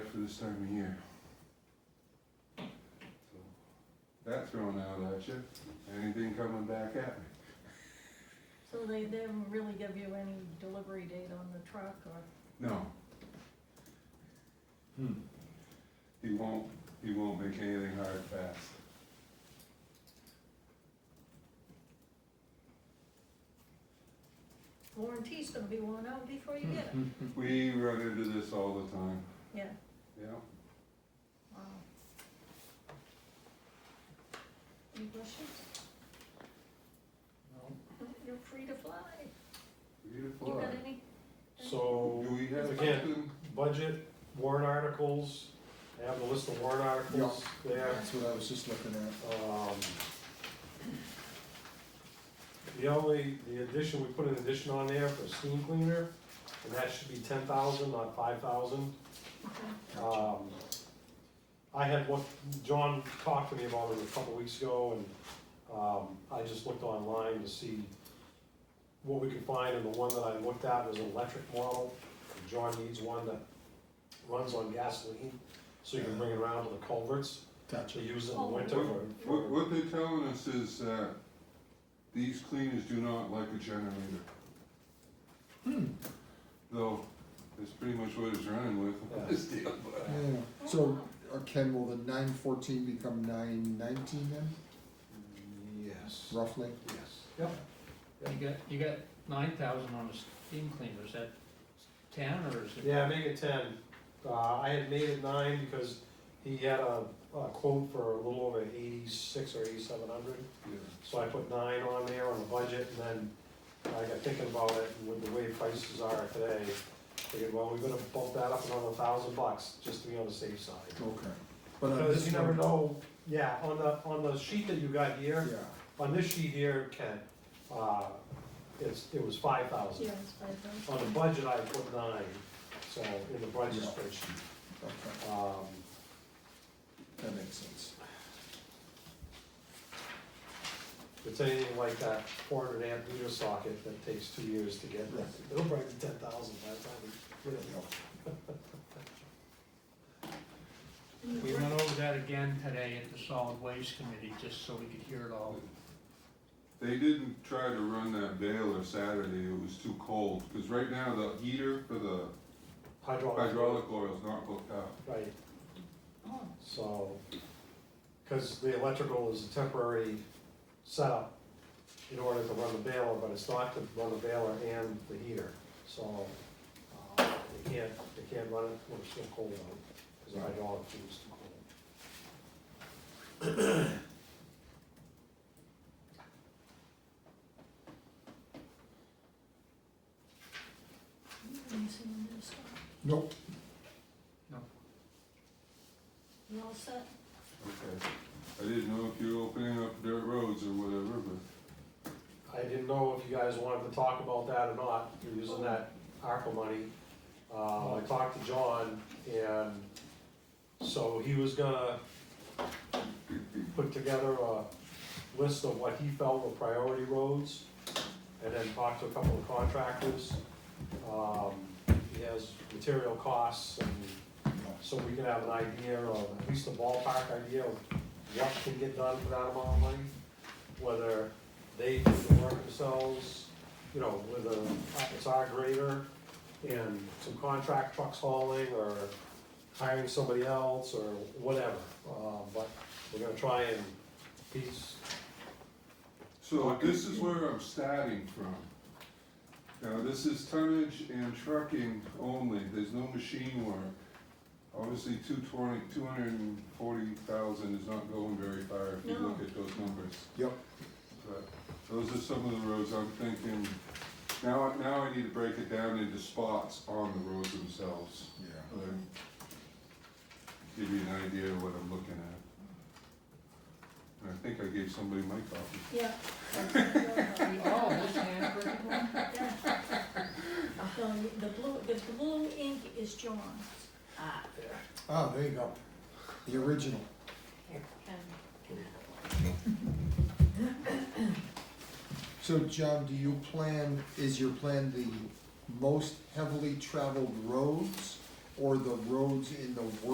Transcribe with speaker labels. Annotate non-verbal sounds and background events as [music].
Speaker 1: this time of year. So That thrown out at you, anything coming back at me?
Speaker 2: So they didn't really give you any delivery date on the truck or?
Speaker 1: No,
Speaker 3: Hmm.
Speaker 1: he won't, he won't make anything hard fast.
Speaker 2: Warranty's gonna be worn out before you get it.
Speaker 4: Mm-hmm.
Speaker 1: We run into this all the time,
Speaker 2: Yeah,
Speaker 1: yeah.
Speaker 2: wow. Any questions? You're free to fly. You
Speaker 1: Beautiful.
Speaker 2: got any?
Speaker 3: So,
Speaker 1: Do we have
Speaker 3: Again.
Speaker 1: something?
Speaker 3: budget, warrant articles, I have the list of warrant articles there.
Speaker 4: That's what I was just looking at.
Speaker 3: Um, The only, the addition, we put an addition on there for steam cleaner, and that should be ten thousand, not five thousand.
Speaker 2: Okay.
Speaker 3: Um, I had what, John talked to me about it a couple weeks ago, and, um, I just looked online to see what we could find, and the one that I looked at was an electric model. John needs one that runs on gasoline, so you can bring it around to the culverts,
Speaker 4: Gotcha.
Speaker 3: to use it in the winter for- for.
Speaker 1: What, what they're telling us is that these cleaners do not like a generator.
Speaker 3: Hmm.
Speaker 1: Though, that's pretty much what it's running with,
Speaker 3: Yeah.
Speaker 1: [laughs] this deal, but.
Speaker 4: Yeah.
Speaker 2: Oh,
Speaker 4: So, uh, Ken, will the nine fourteen become nine nineteen then,
Speaker 3: Yes.
Speaker 4: roughly?
Speaker 3: Yes. Yep.
Speaker 5: You got, you got nine thousand on the steam cleaner, is that ten or is it?
Speaker 3: Yeah, make it ten. Uh, I had made it nine because he had a, a quote for a little over eighty-six or eighty-seven hundred. So I put nine on there on the budget and then I got thinking about it and with the way prices are today, figured, well, we're gonna bump that up another thousand bucks just to be on the safe side.
Speaker 4: Okay. But on
Speaker 3: Because
Speaker 4: this
Speaker 3: you never
Speaker 4: one-
Speaker 3: know, yeah, on the, on the sheet that you got here,
Speaker 4: Yeah,
Speaker 3: on this sheet here, Ken, uh, it's, it was five thousand.
Speaker 2: Yeah, it's five thousand.
Speaker 3: On the budget, I put nine, so in the budget
Speaker 4: Yeah.
Speaker 3: spreadsheet.
Speaker 4: okay,
Speaker 3: Um,
Speaker 4: that makes sense.
Speaker 3: if it's anything like that four hundred amp meter socket that takes two years to get,
Speaker 4: Right.
Speaker 3: it'll probably be ten thousand by the time we get it.
Speaker 4: Yeah.
Speaker 5: We went over that again today at the solid waste committee, just so we could hear it all.
Speaker 1: They didn't try to run that baler Saturday, it was too cold, cause right now the heater for the
Speaker 3: Hydraulic.
Speaker 1: hydraulic oil is not hooked up.
Speaker 3: Right,
Speaker 2: Oh,
Speaker 3: so, cause the electrical is a temporary setup in order to run the baler, but it's not to run the baler and the heater, so, uh, they can't, they can't run it when it's still cold out, cause the hydraulic is too cold.
Speaker 2: let me see when this starts.
Speaker 4: Nope.
Speaker 2: You all set?
Speaker 1: Okay, I didn't know if you were opening up dirt roads or whatever, but
Speaker 3: I didn't know if you guys wanted to talk about that or not, you're using that ARPA money. Uh, I talked to John, and so he was gonna put together a list of what he felt were priority roads, and then talk to a couple of contractors. Um, he has material costs, and so we can have an idea, of at least a ballpark idea of what can get done for that amount of money, whether they do the work themselves, you know, with a, it's our grader and some contract trucks hauling or hiring somebody else or whatever. Uh, but we're gonna try and, he's,
Speaker 1: So this is where I'm starting from. Now, this is tonnage and trucking only, there's no machine work. Obviously, two twenty, two hundred and forty thousand is not going very far if you
Speaker 2: No.
Speaker 1: look at those numbers.
Speaker 4: Yep.
Speaker 1: But those are some of the roads I'm thinking, now, now I need to break it down into spots on the roads themselves.
Speaker 4: Yeah.
Speaker 1: but Give you an idea of what I'm looking at. And I think I gave somebody my copy.
Speaker 2: Yeah. [laughs]
Speaker 5: Oh, this handwritten one?
Speaker 2: Yeah. So [laughs] the blue, the blue ink is John's. Ah.
Speaker 4: Ah, there you go. The original.
Speaker 2: Here, Ken.
Speaker 4: So, John, do you plan, is your plan the most heavily traveled roads or the roads in the worst